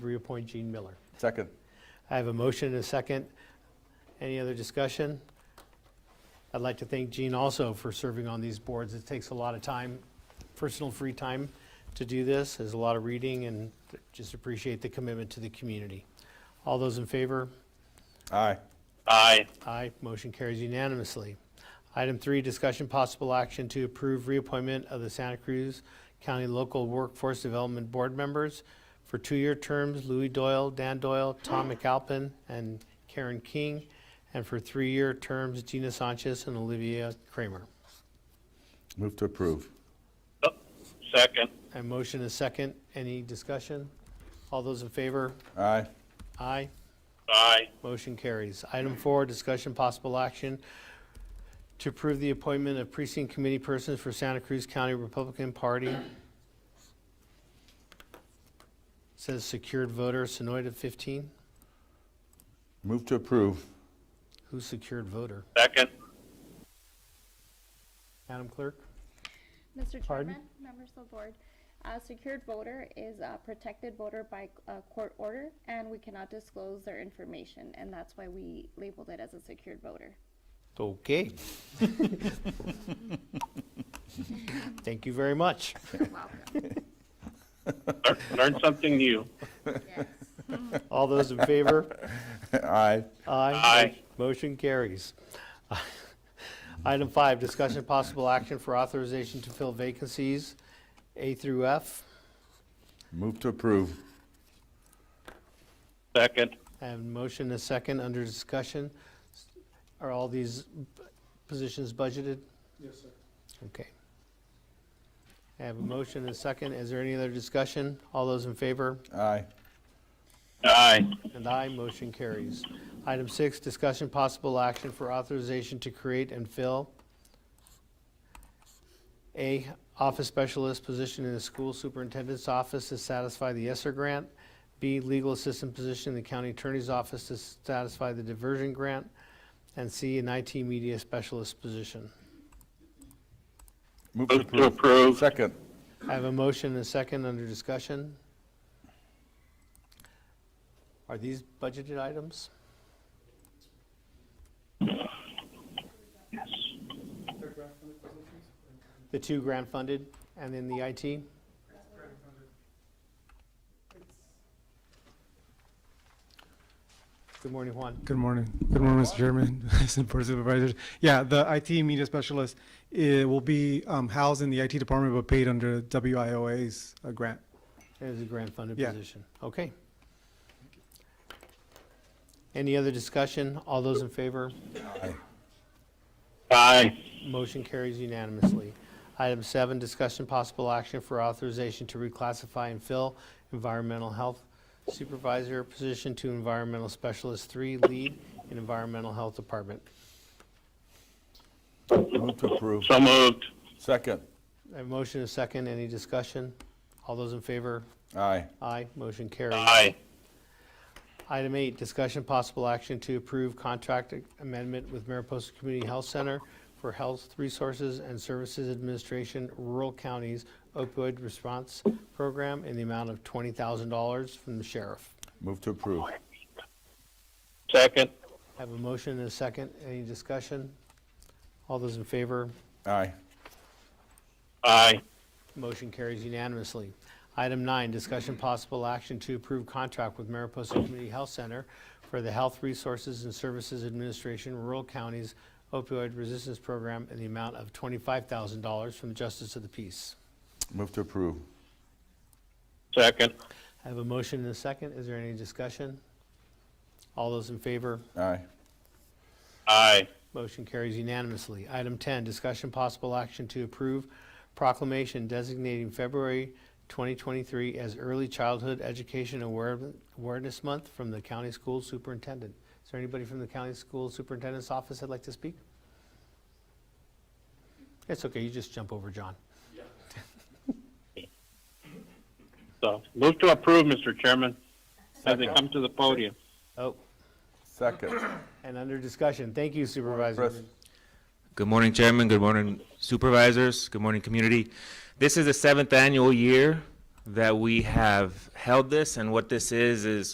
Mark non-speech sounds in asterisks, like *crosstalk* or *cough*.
reappoint Gene Miller. Second. I have a motion and a second. Any other discussion? I'd like to thank Gene also for serving on these boards. It takes a lot of time, personal free time to do this. There's a lot of reading and just appreciate the commitment to the community. All those in favor? Aye. Aye. Aye, motion carries unanimously. Item three, discussion possible action to approve reappointment of the Santa Cruz County Local Workforce Development Board members for two-year terms, Louis Doyle, Dan Doyle, Tom McAlpin, and Karen King, and for three-year terms, Gina Sanchez and Olivia Kramer. Move to approve. Oh, Second. A motion is second. Any discussion? All those in favor? Aye. Aye. Aye. Motion carries. Item four, discussion possible action to approve the appointment of precinct committee persons for Santa Cruz County Republican Party. Says secured voter, Sonoit of 15. Move to approve. Who's secured voter? Second. Madam Clerk? Mr. Pardon? Chairman, members of the board, a secured voter is a protected voter by uh, court order, and we cannot disclose their information, and that's why we labeled it as a secured voter. Okay. *laughs* Thank you very much. Welcome. Lear- Learn something new. Yes. All those in favor? *laughs* Aye. Aye. Aye. Motion carries. *laughs* Item five, discussion possible action for authorization to fill vacancies, A through F. Move to approve. Second. I have a motion and a second under discussion. Are all these positions budgeted? Yes, sir. Okay. I have a motion and a second. Is there any other discussion? All those in favor? Aye. Aye. And I motion carries. Item six, discussion possible action for authorization to create and fill a office specialist position in the school superintendent's office to satisfy the ESSER grant. B, legal assistant position in the county attorney's office to satisfy the diversion grant. And C, an IT media specialist position. Move to Move to approve. approve. Second. I have a motion and a second under discussion. Are these budgeted items? Third graph from the positions? The two grant-funded and then the IT? Good morning, Juan. Good morning. Good morning, Mr. Chairman, *laughs* Assistant Board Supervisors. Yeah, the IT media specialist, it will be um, housed in the IT department but paid under WIOA's uh, grant. It is a grant-funded Yeah. position. Okay. Any other discussion? All those in favor? Aye. Motion carries unanimously. Item seven, discussion possible action for authorization to reclassify and fill environmental health supervisor position to environmental specialist three, lead in environmental health department. Move to approve. So moved. Second. I have a motion and a second. Any discussion? All those in favor? Aye. Aye. Motion carries. Aye. Item eight, discussion possible action to approve contract amendment with Mariposa Community Health Center for Health Resources and Services Administration Rural Counties Opioid Response Program in the amount of $20,000 from the sheriff. Move to approve. Second. Have a motion and a second. Any discussion? All those in favor? Aye. Aye. Motion carries unanimously. Item nine, discussion possible action to approve contract with Mariposa Community Health Center for the Health Resources and Services Administration Rural Counties Opioid Resistance Program in the amount of $25,000 from the Justice of the Peace. Move to approve. Second. I have a motion and a second. Is there any discussion? All those in favor? Aye. Aye. Motion carries unanimously. Item 10, discussion possible action to approve proclamation designating February 2023 as Early Childhood Education Aware- Awareness Month from the county school superintendent. Is there anybody from the county school superintendent's office that'd like to speak? It's okay, you just jump over, John. So move to approve, Mr. Chairman, as they come to the podium. Oh, Second. and under discussion, thank you Chris. Supervisor. Good morning, Chairman. Good morning, Supervisors. Good morning, community. This is the seventh annual year that we have held this, and what this is, is